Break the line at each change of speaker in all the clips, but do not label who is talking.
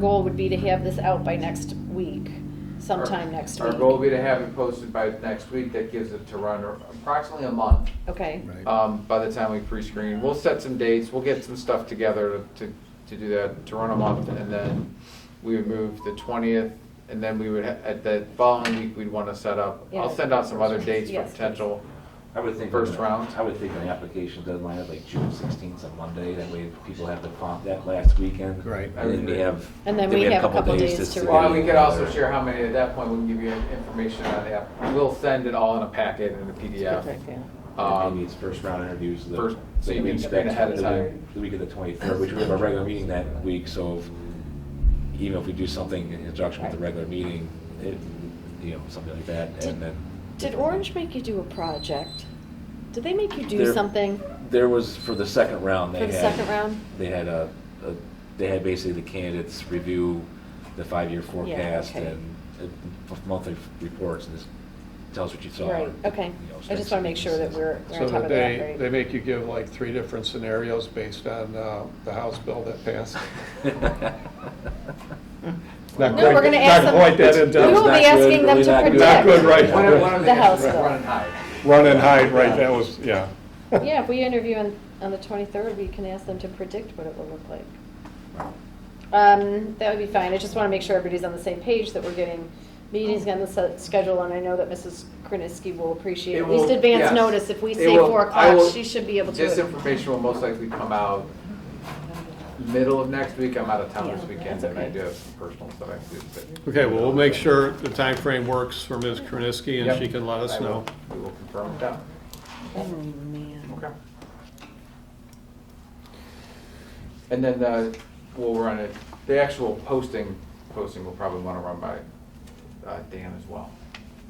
Goal would be to have this out by next week, sometime next
Our goal will
week.
be to have it posted by next week, that gives it to run approximately a month,
Okay,
Oh,
um, by the time we pre-screen. We'll set some dates, we'll get some stuff together to, to do that, to run a month, and then we would move the twentieth, and then we would, ha- at the following week, we'd wanna set up,
Yeah.
I'll send out some other dates for
Yes.
potential.
I would think.
First round.
I would think the application deadline of like June sixteenth on Monday, that way people have the font that last weekend.
Right.
And then we have.
And then we have a couple days to
Well,
Well,
we could also share how many, at that point, we can give you information on the app. We'll send it all in a packet in a
Perfect,
PDF.
yeah.
Um,
Um,
Maybe it's first round interviews. the-
First-
so you
we
meet
can
back
ahead of
the
time.
week- The week of the twenty-third, which we have a regular meeting that week, so if- even if we do something in conjunction with the regular meeting, it, you know, something like that, and then.
Did Orange make you do a project? Did they make you do
There-
something?
There was, for the second round, they
For
had.
the second round?
They had a, a- they had basically the candidates review the five-year forecast
okay.
and uh, monthly reports, and this tells what you saw.
Right, okay.
you know,
I just want to make sure that we're we're
So
on top
that
of
they,
that,
they
right?
make you give like three different scenarios based on uh, the House bill that passed. Not
No, we're
quite-
going to ask
Not
them.
quite that in
We will
Not
be
good,
asking them
really
to
not good.
predict.
Not good, right.
One of, one of the
The House
answers,
bill.
run and hide.
Run and hide, right, that was, yeah.
Yeah, if we interview on, on the 23rd, we can ask them to predict what it will look like. Um, That would be fine. I just want to make sure everybody's on the same page, that we're getting meetings
Oh.
on the se- schedule, and I know that Mrs. Kroniski will appreciate
It
at least
will-
advance
yes.
notice. If we
It
say
will-
4
I will-
o'clock, she should be able to.
This information will most likely come out middle of next week. I'm out of town this
Yeah,
weekend,
that's
and I
okay.
do have some personal stuff I have to do. but-
Okay, well, we'll make sure the time frame works for Ms. Krasinski and
Yep.
she can let
I
us
will-
know.
We will confirm it down.
Oh, man.
Okay. And then, uh, we'll run it, the actual posting, posting will probably wanna run by, uh, Dan as well.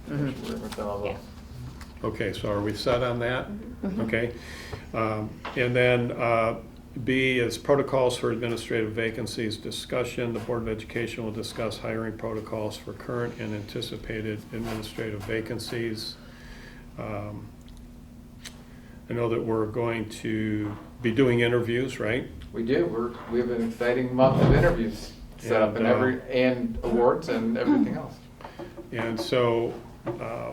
We're gonna send all those.
Okay, so are we set on that? Okay. Um, And then uh, B is protocols for administrative vacancies discussion. The Board of Education will discuss hiring protocols for current and anticipated administrative vacancies. Um, I know that we're going to be doing interviews, right?
We do, we're, we have an exciting month of interviews set up and
And, uh,
every, and awards
Hmm.
and everything else.
And so, uh,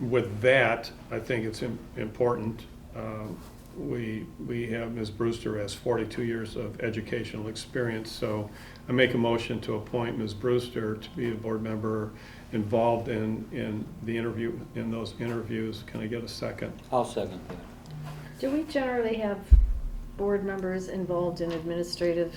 with that, I think it's im- important, um, we, we have Ms. Brewster has 42 years of educational experience, so I make a motion to appoint Ms. Brewster to be a board member involved in, in the interview, in those interviews. Can I get a second?
Uh,
I'll second that.
Do we generally have board members involved in administrative?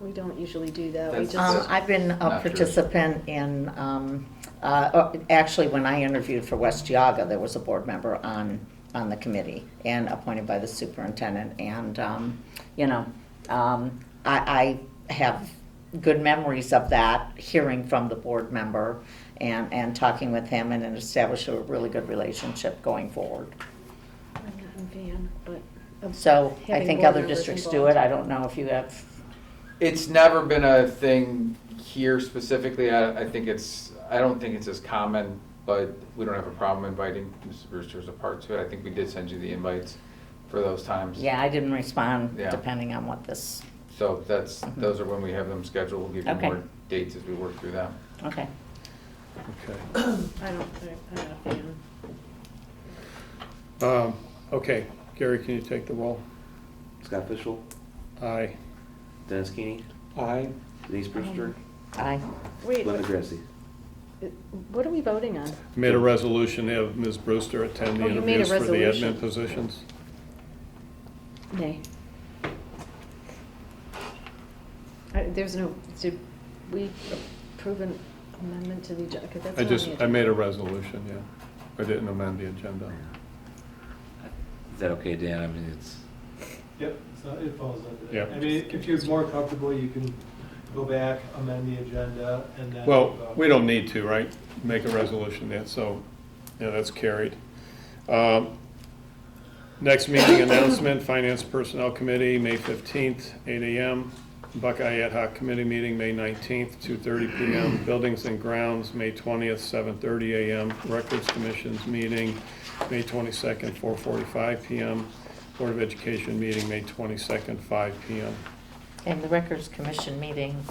We don't usually do that. We
That's-
Um,
just,
I've been a
Not true.
participant in, um, uh, oh, actually, when I interviewed for West Yaga, there was a board member on, on the committee and appointed by the superintendent. And, um, you know, um, I, I have good memories of that, hearing from the board member and, and talking with him and then establish a really good relationship going forward.
I'm not in van, but. of
So Um, I
having
think
board
other
members
districts do
involved.
it. I don't know if you have,
It's never been a thing here specifically. I, I think it's, I don't think it's as common, but we don't have a problem inviting Mrs. Brewster as a part to it. I think we did send you the invites for those times.
yeah, I didn't respond
Yeah.
depending on what this,
So that's, those are when we have them scheduled. We'll give you
Mm-hmm. Okay.
more dates as we work through them.
okay.
Okay.
I don't, I'm not a fan.
Um, Okay, Gary, can you take the roll?
Scott Fishel,
Aye.
Dennis Keeney,
Aye.
Denise Brewster,
Aye.
Wait,
Linda
what-
Grassi.
Uh, what are we voting on?
Made a resolution to have Ms. Brewster attend the
Oh, you made a
interviews for the
resolution.
admin positions.
Nay. I- There's no, did we approve an amendment to the agenda? 'Cause that's
I
not on
just,
the
I made a
agenda.
resolution, yeah. I didn't amend the agenda.
Is that okay, Dan? I mean, it's,
Yep, so it falls under
Yep.
that. I mean, if you're more comfortable, you can go back, amend the agenda, and then. uh,
Well, we don't need to, right? Make a resolution that, so, yeah, that's carried. Um, Next meeting announcement, Finance Personnel Committee, May 15th, 8 AM. Buckeye Ad Hoc Committee meeting, May 19th, 2:30 PM. Buildings and Grounds, May 20th, 7:30 AM. Records Commission's meeting, May 22nd, 4:45 PM. Board of Education meeting, May 22nd, 5 PM.
And the Records Commission meeting